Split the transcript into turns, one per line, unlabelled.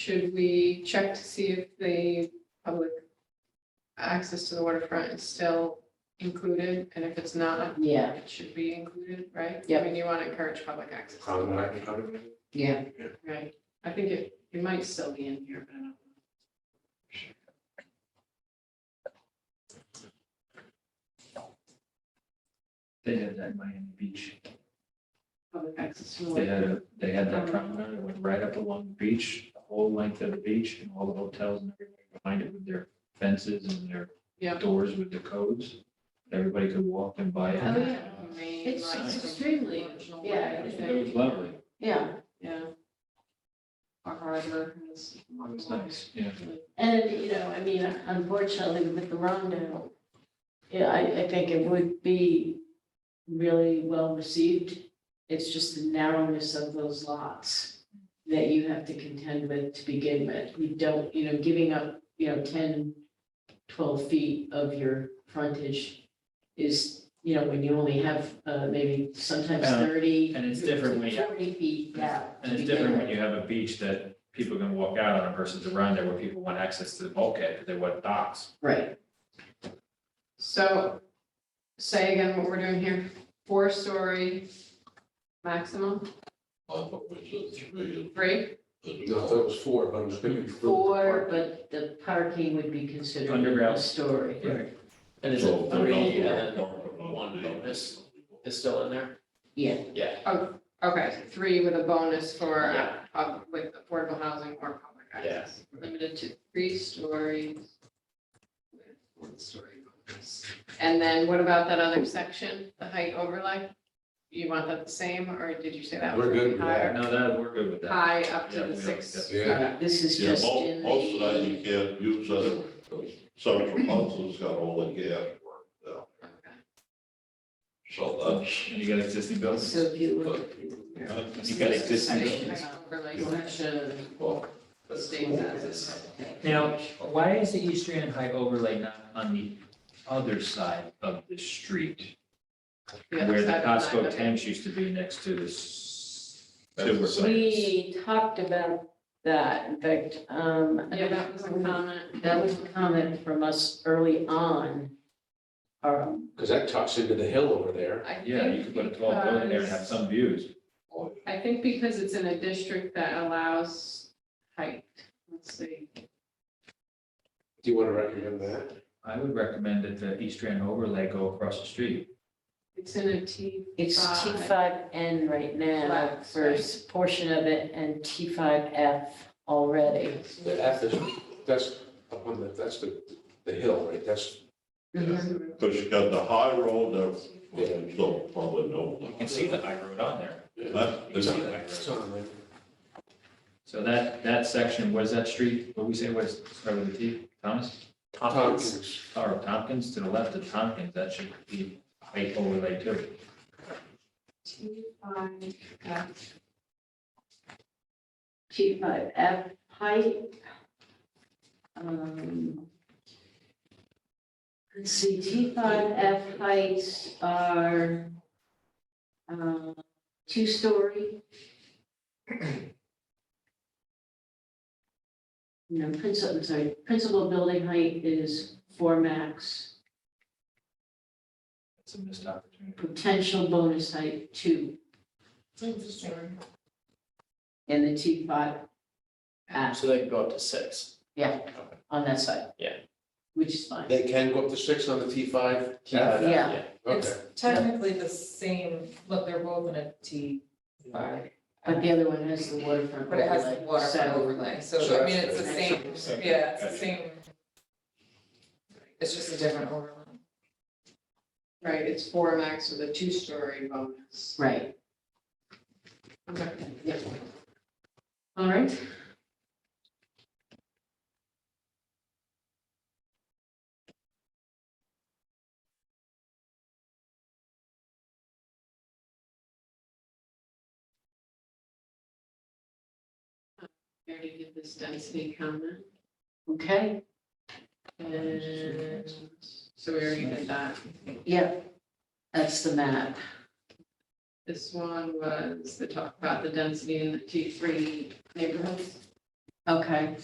Should we check to see if the public access to the waterfront is still included? And if it's not,
Yeah,
it should be included, right? I
Yep.
mean, you want to encourage public access,
Problematic, probably.
yeah.
right? I think it, it might still be in here, but I don't know.
They had that in Miami Beach.
Public access to the
They
water.
had, a they had that promenade that went right up along the beach, the whole length of the beach and all the hotels and everything behind it with their fences and their
Yeah.
doors with the codes. Everybody could walk and buy it.
Oh, yeah. Main
It's-
lines
it's
from
extremely-
original
yeah,
way,
it's
yeah.
It was lovely.
Yeah,
Yeah. Our harbor is.
It was nice, yeah.
and, you know, I mean, unfortunately with the Rondo, yeah, I, I think it would be really well received. It's just the narrowness of those lots that you have to contend with to begin with. You don't, you know, giving up, you know, 10, 12 feet of your frontage is, you know, when you only have, uh, maybe sometimes
Uh,
thirty.
and it's different when you-
Forty feet, yeah.
And it's different when you have a beach that people can walk out on versus around there where people want access to the bulkhead, because they want docks.
Right.
So, say again what we're doing here, four-story maximum,
I thought it was a three.
three,
No, I thought it was four, but I'm speaking. for-
Four, but the parking would be considered a
Underground.
story.
Right.
And is
So-
it three and then one bonus
Bonus.
is still in there?
Yeah,
okay, so three with a bonus for, uh,
Yeah.
pub- with affordable housing or public access. Limited to three stories. with One-story bonus. And then what about that other section, the height overlay? You want that the same, or did you say that? was
We're good with
higher?
No, that, we're good with that.
High up to
Yeah,
the
we are,
six.
yeah.
okay.
uh, this is
Yeah,
just in
most, most of that you
the, uh,
can't use that, central council's got all the gas work down,
Okay.
so
And you got existing buildings?
so if you look.
And You got existing buildings?
Section overlay
Section,
that's, well,
stays as is.
Now, why is the East Strand High overlay not on the other side of the street?
Yeah,
Where the
side by side,
Costco
okay.
tanks used to be next to the s-
That's
sewer
the
plants.
We talked about that, in fact, um.
Yeah, that was a comment.
That was a comment from us early on. Um,
Because that tucks into the hill over there.
I
Yeah, you
think
could put a tall building there and have
because-
some views.
I think because it's in a district that allows height, let's see.
Do you want to recommend that?
I would recommend that the East Strand overlay go across the street.
It's in a T,
It's T
Five.
five N right now
Flex,
for a
right.
s- portion of it and T five F already.
The F is, that's up on the, that's the, the hill, right? That's,
Mm-hmm.
because you got the high road there, which you don't probably know.
You can see the high road on there.
That-
it's
there's-
on, it's on, right?
So that, that section, what is that street? What we say, what is, start with a T, Thomas?
Tompkins.
Or Tompkins, to the left of Tompkins, that should be height overlay too.
T five, uh,
T five F height. Um, Let's see, T five F heights are um, two-story. No, principal, I'm sorry, principal building height is four max,
It's a missed opportunity.
potential bonus height two in the T five Ah.
So they can go up to six.
on that side.
Yeah.
Which is fine.
They can go up to six on the T five.
Yeah.
Okay.
Technically the same, look, they're both in a T five,
But the other one has the waterfront.
but it has the
overlay,
waterfront
so-
overlay, so
So
I mean,
that's
it's the same,
good.
yeah, it's the
Gotcha.
same. It's just a different overlay.
right, it's four max with a two-story bonus.
Right.
Okay.
Yep. All right.
I already did this density comment,
Okay.
and so we already did that.
Yep. That's the map.
This one was the talk about the density in the T three neighborhoods. Okay.